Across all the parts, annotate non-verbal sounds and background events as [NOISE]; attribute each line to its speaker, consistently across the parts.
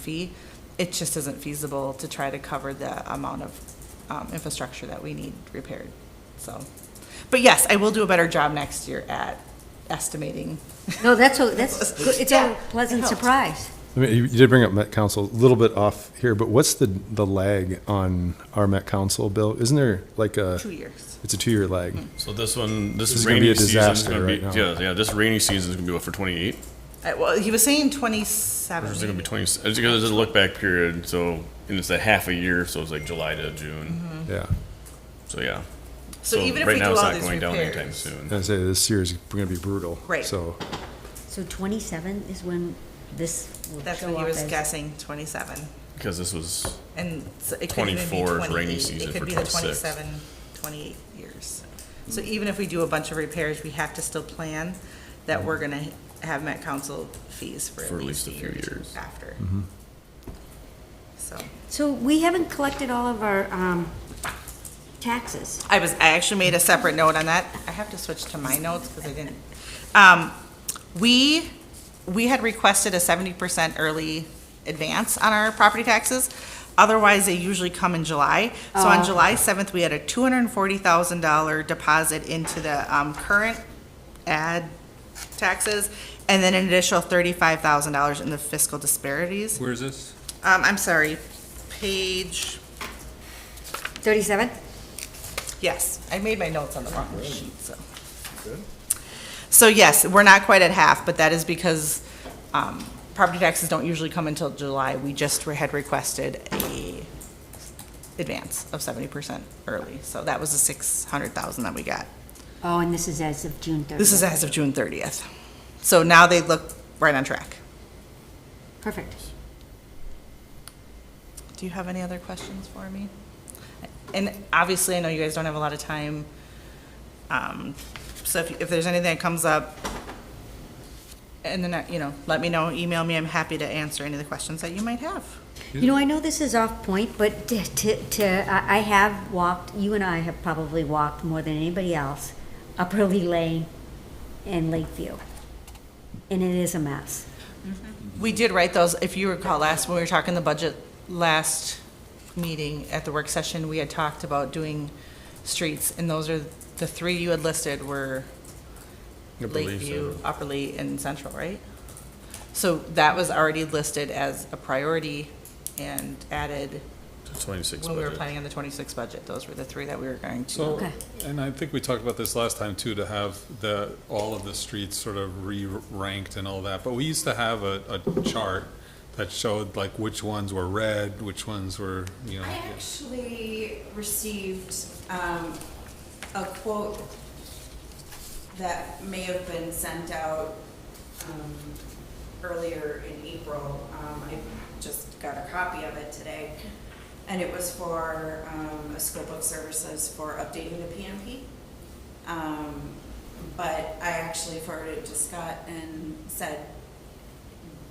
Speaker 1: fee. It just isn't feasible to try to cover the amount of um, infrastructure that we need repaired, so. But yes, I will do a better job next year at estimating.
Speaker 2: No, that's, a- that's, good. it's
Speaker 1: Yeah,
Speaker 2: a
Speaker 1: it
Speaker 2: pleasant
Speaker 1: helped.
Speaker 2: surprise.
Speaker 3: I mean, you you did bring up Met Council, a little bit off here, but what's the, the lag on our Met Council bill? Isn't there like a,
Speaker 1: Two years.
Speaker 3: it's a two-year lag?
Speaker 4: So this one, this,
Speaker 3: This is gonna be
Speaker 4: rainy
Speaker 3: a
Speaker 4: season is
Speaker 3: disaster
Speaker 4: gonna
Speaker 3: right
Speaker 4: be
Speaker 3: now.
Speaker 4: yeah, yeah. This rainy season is gonna be what for twenty eight,
Speaker 1: Uh, Well, he was saying
Speaker 4: or
Speaker 1: twenty-seven.
Speaker 4: is it gonna be twenty? It's because it's a look back period, so and it's a half a year, so it's like July to June.
Speaker 3: Yeah.
Speaker 4: So yeah.
Speaker 1: Mm-hmm. So even if
Speaker 4: right
Speaker 1: we do
Speaker 4: now it's
Speaker 1: all
Speaker 4: not
Speaker 1: these
Speaker 4: going down anytime
Speaker 1: repairs.
Speaker 4: soon.
Speaker 3: And I say this year is going to be brutal.
Speaker 1: Right.
Speaker 3: So,
Speaker 2: So 27 is when this will
Speaker 1: That's
Speaker 2: show
Speaker 1: what he
Speaker 2: up
Speaker 1: was
Speaker 2: as.
Speaker 1: guessing, twenty-seven.
Speaker 4: Because this was
Speaker 1: And so it could even be
Speaker 4: 24 is rainy
Speaker 1: 28.
Speaker 4: season
Speaker 1: It could
Speaker 4: for
Speaker 1: be the
Speaker 4: 26.
Speaker 1: 27, 28 years. So even if we do a bunch of repairs, we have to still plan that we're gonna have Met Council fees for at least a few years
Speaker 4: years.
Speaker 1: after. So,
Speaker 2: So we haven't collected all of our um, taxes.
Speaker 1: I was, I actually made a separate note on that. I have to switch to my notes because I didn't. Um, we, we had requested a seventy percent early advance on our property taxes. Otherwise, they usually come in July. So on July seventh, we had a two hundred and forty thousand dollar deposit into the, um, current ad taxes, and then an additional thirty-five thousand dollars in the fiscal disparities.
Speaker 5: Where's this?
Speaker 1: Um, I'm sorry, page,
Speaker 2: 37?
Speaker 1: Yes, I made my notes on the wrong sheet, so. So yes, we're not quite at half, but that is because um, property taxes don't usually come until July. We just re- had requested a advance of seventy percent early, so that was the six hundred thousand that we got.
Speaker 2: Oh, and this is as of June 30th.
Speaker 1: This is as of June thirtieth. So now they look right on track.
Speaker 2: Perfect.
Speaker 1: Do you have any other questions for me? And obviously, I know you guys don't have a lot of time. Um, So if, if there's anything that comes up, and then, you know, let me know, email me, I'm happy to answer any of the questions that you might have.
Speaker 2: You know, I know this is off point, but to- to, to, I I have walked, you and I have probably walked more than anybody else, Upperly Lane and Lakeview. And it is a mess.
Speaker 1: We did write those, if you recall, last, when we were talking the budget last meeting at the work session, we had talked about doing streets, and those are, the three you had listed were Lakeview, Upper Lee, and Central, right? So that was already listed as a priority and added
Speaker 4: twenty six.
Speaker 1: when we were planning on the twenty-six budget. Those were the three that we were going to.
Speaker 5: So,
Speaker 2: Okay.
Speaker 5: and I think we talked about this last time too, to have the, all of the streets sort of re-ranked and all that, but we used to have a, a chart that showed like which ones were red, which ones were, you know.
Speaker 6: I actually received um, a quote that may have been sent out um, earlier in April. Um, I just got a copy of it today. And it was for um, a scope of services for updating the PMP. Um, But I actually forwarded it to Scott and said,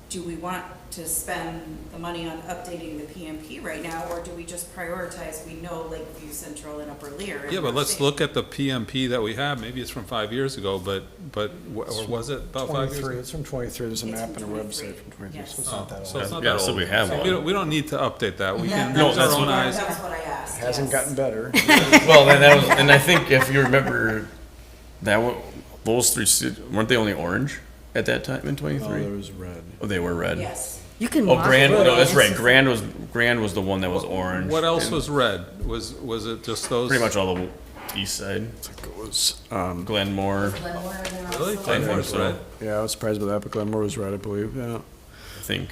Speaker 6: do we want to spend the money on updating the PMP right now, or do we just prioritize, we know Lakeview Central and Upper Lear? and
Speaker 5: Yeah, but let's
Speaker 6: we're
Speaker 5: look at the PMP that we have, maybe it's from five years ago, but, but, wh- or was it about Oh, five years?
Speaker 7: 23,
Speaker 5: ago? Oh,
Speaker 7: it's from 23, there's a
Speaker 6: It's
Speaker 7: map
Speaker 6: from
Speaker 7: and a
Speaker 6: 23,
Speaker 7: website from 23,
Speaker 6: yes.
Speaker 7: so it's not that
Speaker 5: So
Speaker 7: old.
Speaker 5: it's not
Speaker 4: Yeah,
Speaker 5: that
Speaker 4: so
Speaker 5: old.
Speaker 4: we have
Speaker 5: So
Speaker 4: one.
Speaker 5: We don't, we don't need to update that, we can
Speaker 4: No,
Speaker 5: use our
Speaker 4: that's
Speaker 5: own
Speaker 4: what-
Speaker 5: eyes.
Speaker 6: That's what I asked.
Speaker 7: Hasn't
Speaker 6: yes.
Speaker 7: gotten better.
Speaker 4: well, and that was,
Speaker 1: [LAUGHS]
Speaker 4: and I think if you remember, that one, those three ci- weren't they only orange at that time in twenty
Speaker 7: Oh, there
Speaker 4: three?
Speaker 7: was red.
Speaker 4: Oh, they were red.
Speaker 6: Yes.
Speaker 2: You can
Speaker 4: Oh,
Speaker 2: walk.
Speaker 4: Grand. No, that's right.
Speaker 1: [LAUGHS]
Speaker 2: This is-
Speaker 4: Grand was Grand was the one that was orange.
Speaker 5: What else
Speaker 4: and
Speaker 5: was red? Was, was it just those?
Speaker 4: Pretty much all the east side.
Speaker 7: I think it was, um,
Speaker 4: Glenmore.
Speaker 5: Really?
Speaker 4: think
Speaker 5: Glenmore's
Speaker 4: so.
Speaker 5: red?
Speaker 7: yeah, I was surprised by that, but Glenmore was red, I believe, yeah.
Speaker 4: I think.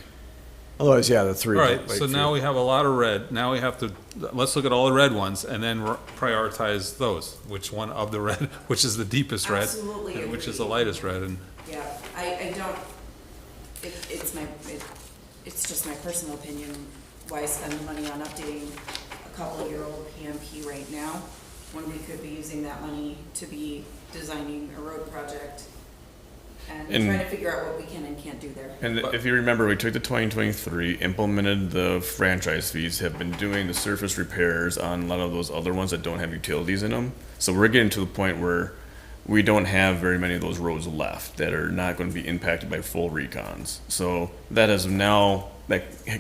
Speaker 7: Otherwise, yeah, the three.
Speaker 5: All right, so now we have a lot of red, now we have to, let's look at all the red ones and then r- prioritize those, which one of the red, [LAUGHS] which is the deepest red?
Speaker 6: Absolutely
Speaker 5: and [LAUGHS] Which is the
Speaker 6: agree.
Speaker 5: lightest red, and,
Speaker 6: Yeah, I, I don't, it, it's my, it, it's just my personal opinion, why spend the money on updating a couple-year-old PMP right now, when we could be using that money to be designing a road project and
Speaker 4: And-
Speaker 6: trying to figure out what we can and can't do there.
Speaker 4: And if you remember, we took the 2023, implemented the franchise fees, have been doing the surface repairs on a lot of those other ones that don't have utilities in them. So we're getting to the point where we don't have very many of those roads left that are not going to be impacted by full recons. So that is now, that